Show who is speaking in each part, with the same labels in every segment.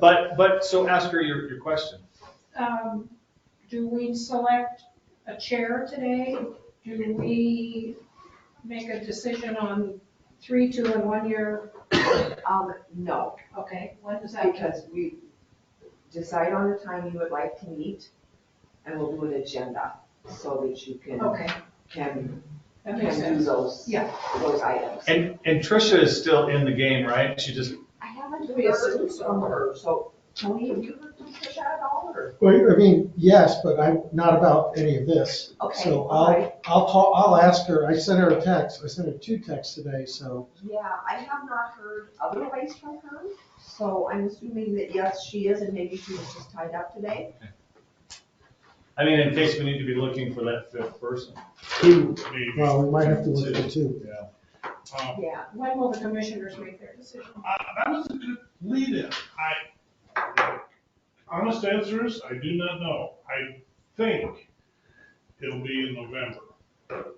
Speaker 1: But, but, so ask her your, your question.
Speaker 2: Um, do we select a chair today? Do we make a decision on three, two, and one year?
Speaker 3: Um, no,
Speaker 2: Okay, when does that?
Speaker 3: because we decide on the time you would like to meet, and we'll do an agenda, so that you can,
Speaker 2: Okay,
Speaker 3: can,
Speaker 2: that makes
Speaker 3: can
Speaker 2: sense.
Speaker 3: do those,
Speaker 2: Yeah.
Speaker 3: those items.
Speaker 1: And, and Tricia is still in the game, right? She just,
Speaker 3: I haven't
Speaker 2: We assume
Speaker 3: heard
Speaker 2: so.
Speaker 3: from her, so, Tony, have you heard from Tricia at all, or?
Speaker 4: Well, I mean, yes, but I'm not about any of this.
Speaker 3: Okay,
Speaker 4: So
Speaker 3: all right,
Speaker 4: I'll, I'll call, I'll ask her, I sent her a text, I sent her two texts today, so.
Speaker 3: yeah, I have not heard otherwise from her, so I'm assuming that yes, she is, and maybe she was just tied up today.
Speaker 1: I mean, in case we need to be looking for that fifth person.
Speaker 4: Two, well, we might have to look at two.
Speaker 1: Yeah.
Speaker 5: Um,
Speaker 3: Yeah,
Speaker 2: When will the commissioners make their decision?
Speaker 5: I- Uh, That was a good lead-in. I, honest answer is, I do not know. I think it'll be in November.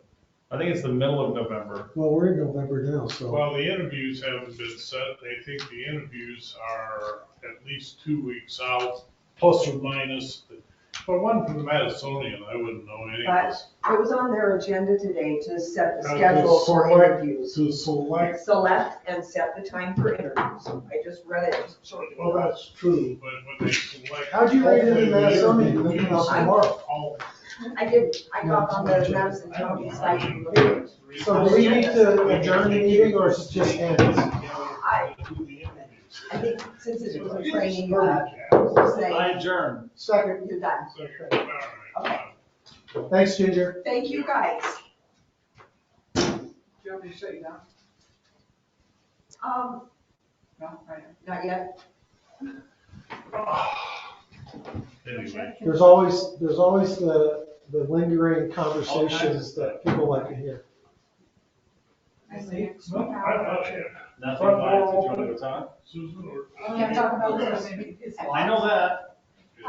Speaker 1: I think it's the middle of November.
Speaker 4: Well, we're in November now, so.
Speaker 5: While the interviews haven't been set, they think the interviews are at least two weeks out, plus or minus. But one from the Madisonian, I wouldn't know anyways.
Speaker 3: it was on their agenda today to set the
Speaker 5: Uh, to
Speaker 3: schedule for
Speaker 5: select-
Speaker 3: interviews.
Speaker 5: To select,
Speaker 3: Select and set the time for interviews. I just read it shortly.
Speaker 5: well, that's true, but when they select.
Speaker 4: How'd you rate it in Madisonian?
Speaker 5: Hopefully the
Speaker 4: Nothing else
Speaker 5: interviews all-
Speaker 3: I did, I got on the Madison County site. and looked at it.
Speaker 4: So do we need to adjourn the meeting or is it just ends?
Speaker 3: I- I think since it was a training, uh,
Speaker 5: Second,
Speaker 3: we'll
Speaker 1: I
Speaker 3: say,
Speaker 1: adjourn.
Speaker 4: Second,
Speaker 3: you're done.
Speaker 5: all right.
Speaker 4: thanks Ginger.
Speaker 3: Thank you, guys.
Speaker 6: Do you want me to shut you down?
Speaker 3: Um,
Speaker 6: No, I am.
Speaker 3: not yet.
Speaker 5: Anyway,
Speaker 4: There's always, there's always the, the lingering conversations that people like to hear.
Speaker 6: I see.
Speaker 5: so I, I, yeah,
Speaker 1: Nothing left. Did you want to go talk?
Speaker 5: Susan or?
Speaker 2: Can't talk about this, maybe it's
Speaker 1: I know that.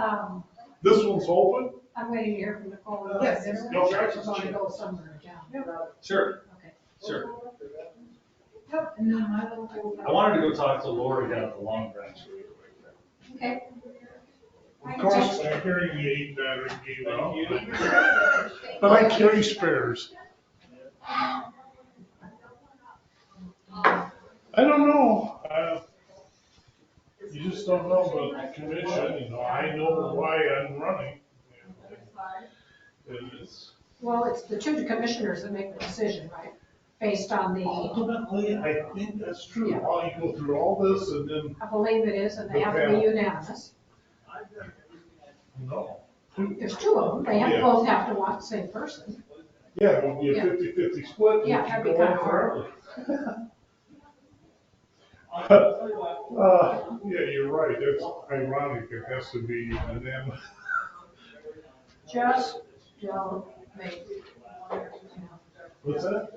Speaker 2: Um,
Speaker 5: This one's open?
Speaker 2: I'm waiting to hear from Nicole.
Speaker 6: Yes.
Speaker 5: No, that's-
Speaker 2: She's gonna go somewhere down.
Speaker 1: Sure,
Speaker 2: Okay.
Speaker 1: sure.
Speaker 6: Yep, and then my little girl-
Speaker 1: I wanted to go talk to Lori down at the Long Branch. really quick.
Speaker 2: Okay.
Speaker 5: Of course, my hearing aid battery gave out.
Speaker 1: Thank
Speaker 5: But I carry spares. I don't know, uh, you just don't know about the commission, you know, I know why I'm running. And it's-
Speaker 2: Well, it's the two commissioners that make the decision, right? Based on
Speaker 5: Oh.
Speaker 2: the,
Speaker 5: Ultimately, I think that's true, while you go through all this and then,
Speaker 2: I believe it is, and they have to be unanimous.
Speaker 5: no.
Speaker 2: There's two of them, they have, both have to want the same person.
Speaker 5: Yeah, it would be a
Speaker 2: Yeah.
Speaker 5: fifty-fifty split. and
Speaker 2: Yeah, that'd be
Speaker 5: go on
Speaker 2: kinda hard.
Speaker 5: forever. Uh, Yeah, you're right, that's ironic, it has to be unanimous.
Speaker 2: Just don't make.
Speaker 5: What's that?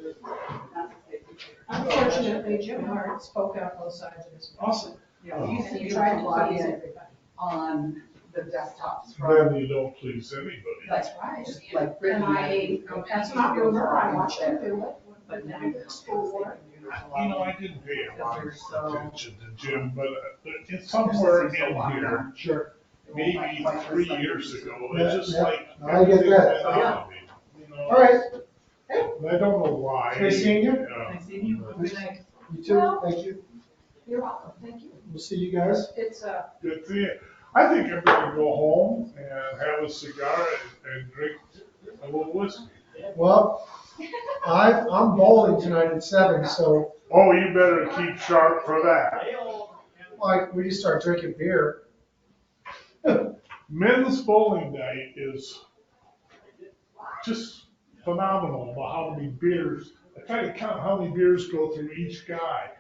Speaker 2: Unfortunately, Jim Hart spoke out both sides of his
Speaker 5: Awesome.
Speaker 6: Yeah, we used
Speaker 2: mouth,
Speaker 6: to
Speaker 2: and he
Speaker 6: be
Speaker 2: tried to please
Speaker 6: login
Speaker 2: everybody.
Speaker 6: on the desktops, right?
Speaker 5: Then you don't please anybody.
Speaker 2: That's right.
Speaker 6: Just like
Speaker 2: And
Speaker 6: Brittany.
Speaker 2: I, that's not real, I watched him do it,
Speaker 6: But
Speaker 2: but
Speaker 6: now
Speaker 2: now
Speaker 6: they're
Speaker 2: it's school board.
Speaker 5: You know, I didn't pay a lot of
Speaker 6: Because they're so-
Speaker 5: attention to Jim, but uh, it's somewhere in here,
Speaker 4: Sure.
Speaker 5: maybe three years ago, it's
Speaker 4: Yeah,
Speaker 5: just
Speaker 4: yeah.
Speaker 5: like.
Speaker 4: I get
Speaker 5: everything
Speaker 4: that.
Speaker 5: went out of me, you know?
Speaker 4: All right,
Speaker 5: And I don't know why.
Speaker 4: Nice seeing you.
Speaker 5: Yeah.
Speaker 6: I see you. Good night.
Speaker 4: you too, thank you.
Speaker 2: You're welcome, thank you.
Speaker 4: We'll see you guys.
Speaker 2: It's, uh,
Speaker 5: Good to you. I think I'm gonna go home and have a cigar and, and drink a little whiskey.
Speaker 4: Well, I, I'm bowling tonight at seven, so
Speaker 5: Oh, you better keep sharp for that.
Speaker 4: like, we just start drinking beer.
Speaker 5: Men's bowling night is just phenomenal, about how many beers, I try to count how many beers go through each guy.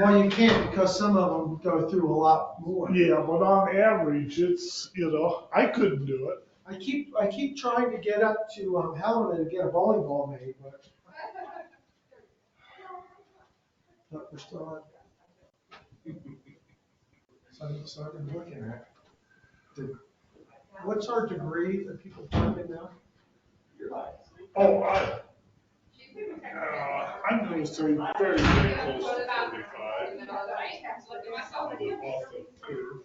Speaker 4: Well, you can't because some of them go through a lot more.
Speaker 5: Yeah, but on average, it's, you know, I couldn't do it.
Speaker 4: I keep, I keep trying to get up to um, Helena to get a bowling ball made, but. But we're still on. So, so I've been looking at. the- What's our degree that people jump in now?
Speaker 5: Oh, I, uh, I'm gonna say very, very close to forty-five.
Speaker 7: I have to look at myself.
Speaker 5: Probably off the curve.